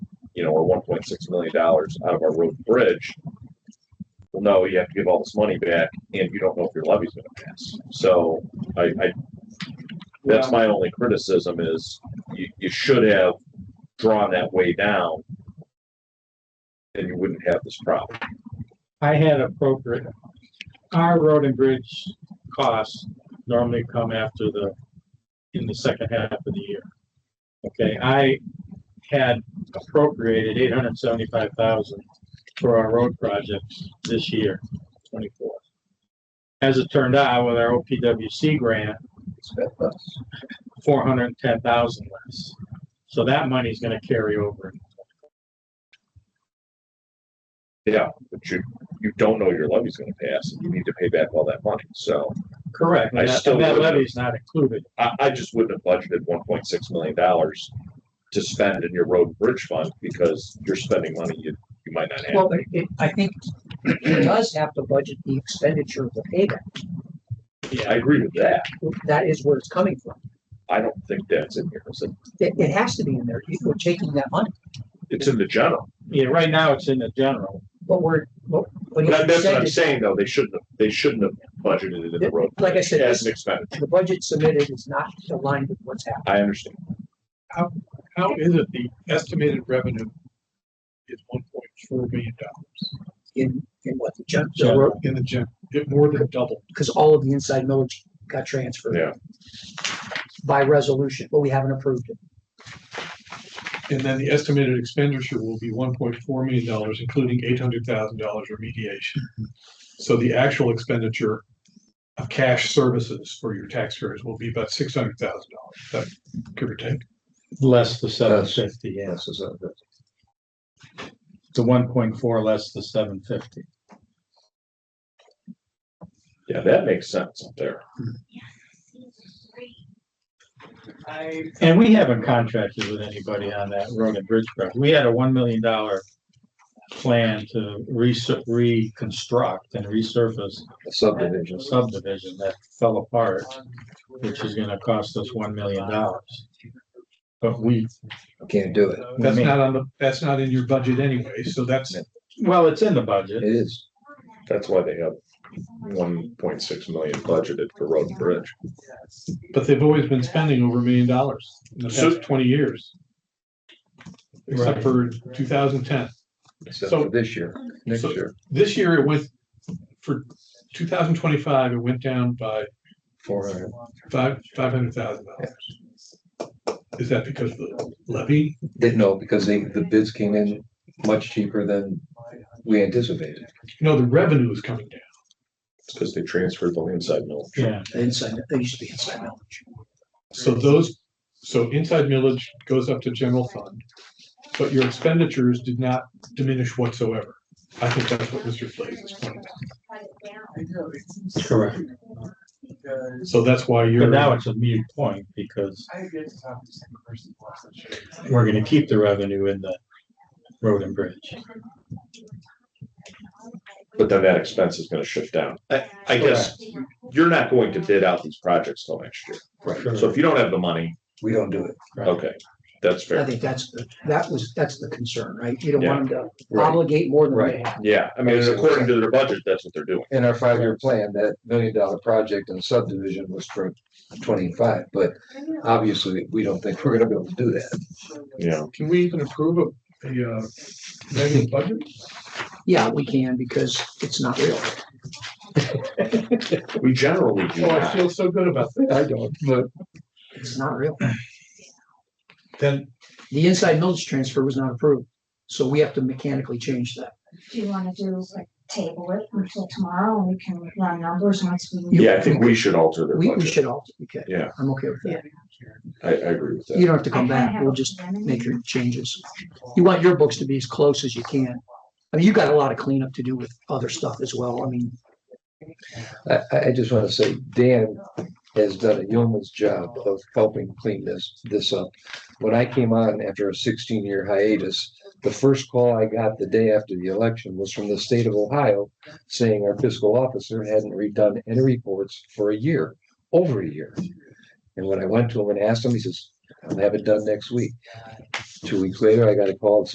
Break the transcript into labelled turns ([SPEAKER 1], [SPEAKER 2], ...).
[SPEAKER 1] you know, or one point six million dollars out of our road and bridge. Well, no, you have to give all this money back and you don't know if your levy's gonna pass. So I, I, that's my only criticism is you, you should have drawn that way down. And you wouldn't have this problem.
[SPEAKER 2] I had appropriate, our road and bridge costs normally come after the, in the second half of the year. Okay, I had appropriated eight hundred seventy-five thousand for our road projects this year, twenty-four. As it turned out, with our OPWC grant, four hundred and ten thousand less. So that money's gonna carry over.
[SPEAKER 1] Yeah, but you, you don't know your levy's gonna pass and you need to pay back all that money. So
[SPEAKER 2] Correct.
[SPEAKER 1] I
[SPEAKER 2] And that
[SPEAKER 1] still
[SPEAKER 2] and that
[SPEAKER 1] would-
[SPEAKER 2] levy's not included.
[SPEAKER 1] I, I just wouldn't have budgeted one point six million dollars to spend in your road and bridge fund because you're spending money you, you might not have.
[SPEAKER 3] Well, it, I think it does have to budget the expenditure of the payback.
[SPEAKER 1] I agree with that.
[SPEAKER 3] That is where it's coming from.
[SPEAKER 1] I don't think that's in here. It's in-
[SPEAKER 3] It, it has to be in there. We're taking that money,
[SPEAKER 1] It's in the general.
[SPEAKER 2] Yeah, right now it's in the general.
[SPEAKER 3] but we're, but. but
[SPEAKER 1] That- That's what I'm
[SPEAKER 3] it's-
[SPEAKER 1] saying though. They shouldn't have, they shouldn't have budgeted it in the road. and
[SPEAKER 3] Like I
[SPEAKER 1] bridge
[SPEAKER 3] said,
[SPEAKER 1] As an expense.
[SPEAKER 3] The budget submitted is not aligned with what's happening.
[SPEAKER 1] I understand.
[SPEAKER 4] How is it the estimated revenue is one point four million dollars?
[SPEAKER 3] in, in what the judge,
[SPEAKER 2] Yeah.
[SPEAKER 4] In the general, it more than doubled.
[SPEAKER 3] because all of the inside millage got transferred.
[SPEAKER 1] Yeah.
[SPEAKER 3] By resolution, but we haven't approved it.
[SPEAKER 4] And then the estimated expenditure will be one point four million dollars, including eight hundred thousand dollars remediation. So the actual expenditure of cash services for your taxpayers will be about six hundred thousand dollars, that give or take.
[SPEAKER 2] Less the seven
[SPEAKER 5] Less.
[SPEAKER 2] fifty, yeah.
[SPEAKER 5] Yes, is that-
[SPEAKER 2] The one point four less the seven fifty.
[SPEAKER 1] Yeah, that makes sense up there.
[SPEAKER 2] And we haven't contracted with anybody on that road and bridge project. We had a one million dollar plan to resu- reconstruct and resurface
[SPEAKER 5] the
[SPEAKER 2] a
[SPEAKER 5] subdivision.
[SPEAKER 2] subdivision that fell apart, which is gonna cost us one million dollars. But we,
[SPEAKER 5] Can't do it.
[SPEAKER 2] we
[SPEAKER 4] That's
[SPEAKER 2] may-
[SPEAKER 4] not on the, that's not in your budget anyway, so that's,
[SPEAKER 2] well, it's in the
[SPEAKER 5] It
[SPEAKER 2] budget.
[SPEAKER 5] is.
[SPEAKER 1] That's why they have one point six million budgeted for road and bridge.
[SPEAKER 4] but they've always been spending over a million dollars in the
[SPEAKER 1] So-
[SPEAKER 4] past twenty years. Except
[SPEAKER 2] Right.
[SPEAKER 4] for two thousand ten.
[SPEAKER 5] Except
[SPEAKER 4] So-
[SPEAKER 5] for this year, next
[SPEAKER 4] so-
[SPEAKER 5] year,
[SPEAKER 4] This year it went, for two thousand twenty-five, it went down by
[SPEAKER 5] four hundred.
[SPEAKER 4] five, five hundred thousand dollars. Is that because of the levy?
[SPEAKER 5] Didn't know because they, the bids came in much cheaper than we anticipated.
[SPEAKER 4] No, the revenue is coming down.
[SPEAKER 1] because they transferred the land side mill.
[SPEAKER 2] Yeah,
[SPEAKER 3] Inside, they used to be inside millage.
[SPEAKER 4] So those, so inside millage goes up to general fund, but your expenditures did not diminish whatsoever. I think that's what Mr. Blaze is pointing out.
[SPEAKER 2] correct.
[SPEAKER 4] So that's why you're.
[SPEAKER 2] But now it's a mute point because we're gonna keep the revenue in the road and bridge.
[SPEAKER 1] But then that expense is gonna shift down. I, I guess you're not going to bid out these projects till next year.
[SPEAKER 2] Right.
[SPEAKER 1] So if you don't have the money,
[SPEAKER 5] We don't do it.
[SPEAKER 1] okay, that's
[SPEAKER 3] I
[SPEAKER 1] fair.
[SPEAKER 3] think that's, the that was, that's the concern, right? You don't want them to
[SPEAKER 5] Right.
[SPEAKER 3] obligate more than they
[SPEAKER 5] Right.
[SPEAKER 3] have.
[SPEAKER 1] Yeah, I mean, according to their budget, that's what they're doing.
[SPEAKER 5] In our five-year plan, that million dollar project and subdivision was for twenty-five, but obviously we don't think we're gonna be able to do that.
[SPEAKER 1] Yeah.
[SPEAKER 4] Can we even approve of the, uh, negative budget?
[SPEAKER 3] Yeah, we can because it's not real.
[SPEAKER 1] We generally do
[SPEAKER 4] Oh, I
[SPEAKER 1] not.
[SPEAKER 4] feel so good about that.
[SPEAKER 5] I don't, but
[SPEAKER 3] It's not real.
[SPEAKER 4] Then
[SPEAKER 3] The inside millage transfer was not approved, so we have to mechanically change that.
[SPEAKER 6] Do you wanna do like table it until tomorrow and we can run numbers once we.
[SPEAKER 1] Yeah, I think we should alter their
[SPEAKER 3] We, we
[SPEAKER 1] budget.
[SPEAKER 3] should all, okay.
[SPEAKER 1] Yeah.
[SPEAKER 3] I'm okay with that.
[SPEAKER 1] I, I agree with
[SPEAKER 3] You
[SPEAKER 1] that.
[SPEAKER 3] don't have to come back. We'll just make your changes. You want your books to be as close as you can. I mean, you got a lot of cleanup to do with other stuff as well. I mean,
[SPEAKER 5] I, I, I just wanna say Dan has done a yeoman's job of helping clean this, this up. When I came on after a sixteen-year hiatus, the first call I got the day after the election was from the state of Ohio saying our fiscal officer hadn't redone any reports for a year, over a year. And when I went to him and asked him, he says, I'll have it done next week. Two weeks later, I got a call